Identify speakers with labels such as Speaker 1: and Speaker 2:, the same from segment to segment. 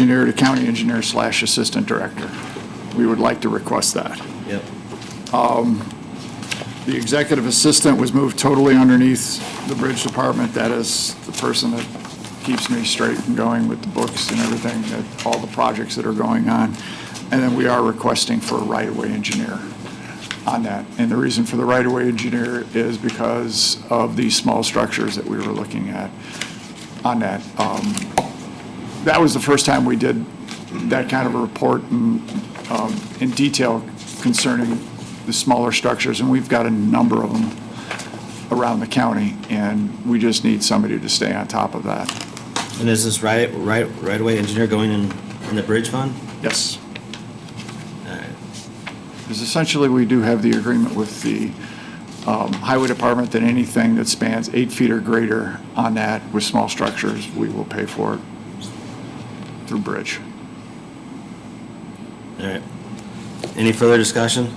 Speaker 1: engineer to county engineer slash assistant director. We would like to request that.
Speaker 2: Yep.
Speaker 1: The executive assistant was moved totally underneath the bridge department. That is the person that keeps me straight and going with the books and everything, that, all the projects that are going on. And then we are requesting for a right-of-way engineer on that. And the reason for the right-of-way engineer is because of the small structures that we were looking at on that. Um, That was the first time we did that kind of a report, and in detail concerning the smaller structures, and we've got a number of them around the county, and we just need somebody to stay on top of that.
Speaker 2: And is this right, right, right away engineer going in, in the bridge fund?
Speaker 1: Yes,
Speaker 2: Alright,
Speaker 1: because essentially, we do have the agreement with the um, highway department that anything that spans eight feet or greater on that with small structures, we will pay for it through bridge.
Speaker 2: alright. Any further discussion?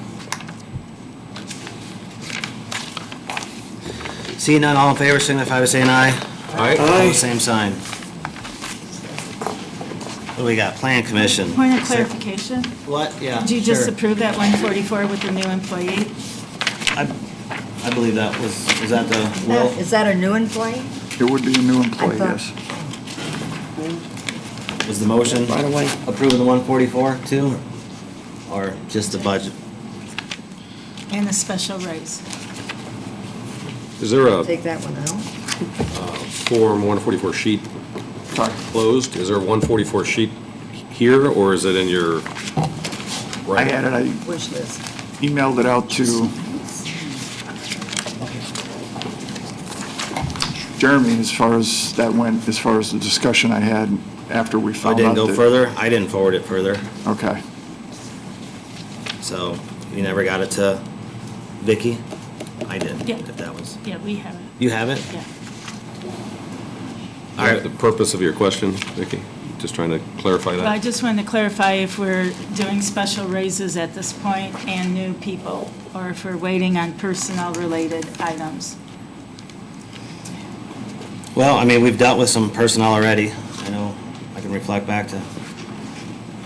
Speaker 2: Seeing none, all in favor, signify by saying aye. Aye. Same sign. What do we got? Plan commission.
Speaker 3: Point of clarification,
Speaker 2: What? Yeah.
Speaker 3: did you just
Speaker 2: sure.
Speaker 3: approve that 144 with the new employee?
Speaker 2: I believe that was, was that the,
Speaker 4: That-
Speaker 2: Will,
Speaker 4: Is that a new employee?
Speaker 1: It would be a new employee,
Speaker 4: I
Speaker 1: yes.
Speaker 4: thought-
Speaker 2: was the motion?
Speaker 5: Right away.
Speaker 2: Approving the one forty-four too? Or just the budget?
Speaker 3: And the special raise?
Speaker 6: Is there a
Speaker 4: Take that one out.
Speaker 6: Form 144 sheet
Speaker 1: Sorry.
Speaker 6: closed? Is there a 144 sheet here, or is it in your?
Speaker 1: I had it, I
Speaker 4: Wish list.
Speaker 1: emailed it out to Jeremy as far as that went, as far as the discussion I had after we
Speaker 2: I
Speaker 1: found out
Speaker 2: didn't go
Speaker 1: that-
Speaker 2: further, I didn't forward it further,
Speaker 1: Okay,
Speaker 2: so you never got it to Vicky? I did,
Speaker 3: Yeah.
Speaker 2: if that was,
Speaker 3: Yeah, we have it,
Speaker 2: you have it?
Speaker 3: yeah.
Speaker 6: All right, the purpose of your question, Vicki? Just trying to clarify
Speaker 3: But I
Speaker 6: that.
Speaker 3: just wanted to clarify if we're doing special raises at this point and new people, or if we're waiting on personnel-related items.
Speaker 2: Well, I mean, we've dealt with some personnel already, I know, I can reflect back to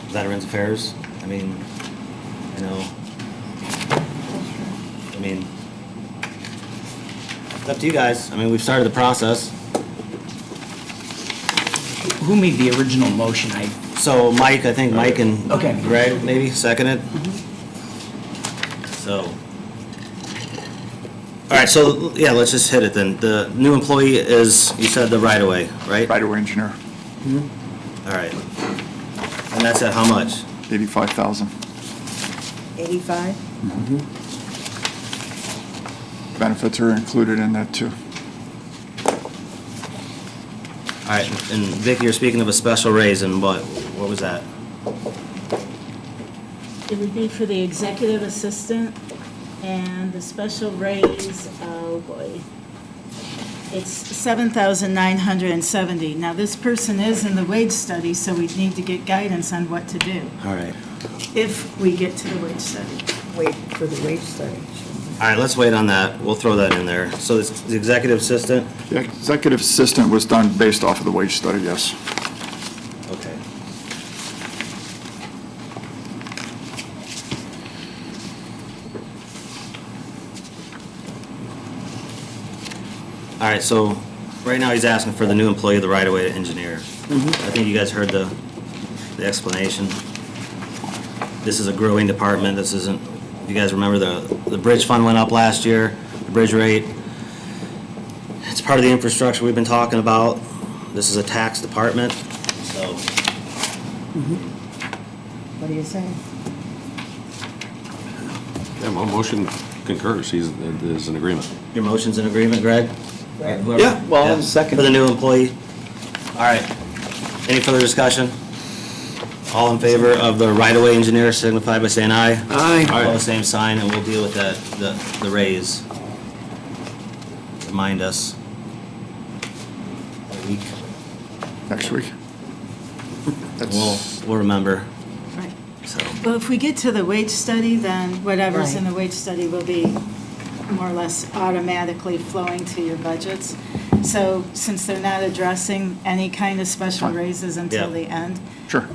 Speaker 2: Veterans Affairs, I mean, you know, I mean, it's up to you guys, I mean, we've started the process,
Speaker 5: Who made the original motion? I,
Speaker 2: so Mike, I think Mike and
Speaker 5: Okay.
Speaker 2: Greg maybe seconded. So. All right, so, yeah, let's just hit it then. The new employee is, you said the right away, right?
Speaker 1: right away engineer,
Speaker 2: All right. And that's at how much?
Speaker 1: 85,000
Speaker 4: 85?
Speaker 1: benefits are included in that too.
Speaker 2: All right, and Vicky, you're speaking of a special raise and what, what was that?
Speaker 3: It would be for the executive assistant and the special raise, oh boy. It's seven thousand nine hundred and seventy. Now, this person is in the wage study, so we need to get guidance on what to do
Speaker 2: All right.
Speaker 3: if we get to the wage study.
Speaker 4: Wait for the wage study.
Speaker 2: All right, let's wait on that. We'll throw that in there. So it's the executive assistant?
Speaker 1: The executive assistant was done based off of the wage study, yes.
Speaker 2: Okay. All right, so right now he's asking for the new employee, the right-of-way engineer. I think you guys heard the, the explanation. This is a growing department, this isn't, you guys remember the, the bridge fund went up last year, the bridge rate. It's part of the infrastructure we've been talking about. This is a tax department, so
Speaker 4: What do you say?
Speaker 6: Yeah, my motion concurs, he's, is in agreement.
Speaker 2: Your motion's in agreement, Greg?
Speaker 4: Right.
Speaker 2: Whoever-
Speaker 5: Yeah, well, I'll second.
Speaker 2: For the new employee. All right. Any further discussion? All in favor of the right-of-way engineer signify by saying aye.
Speaker 5: I,
Speaker 6: Aye.
Speaker 2: All the same sign, and we'll deal with that, the, the raise. Remind us. A week.
Speaker 1: Next week.
Speaker 2: We'll,
Speaker 1: That's,
Speaker 2: we'll remember,
Speaker 3: Right.
Speaker 2: so.
Speaker 3: Well, if we get to the wage study, then whatever's in
Speaker 4: Right.
Speaker 3: the wage study will be more or less automatically flowing to your budgets. So since they're not addressing any kind of special raises until
Speaker 2: Yeah.
Speaker 3: the end, Sure.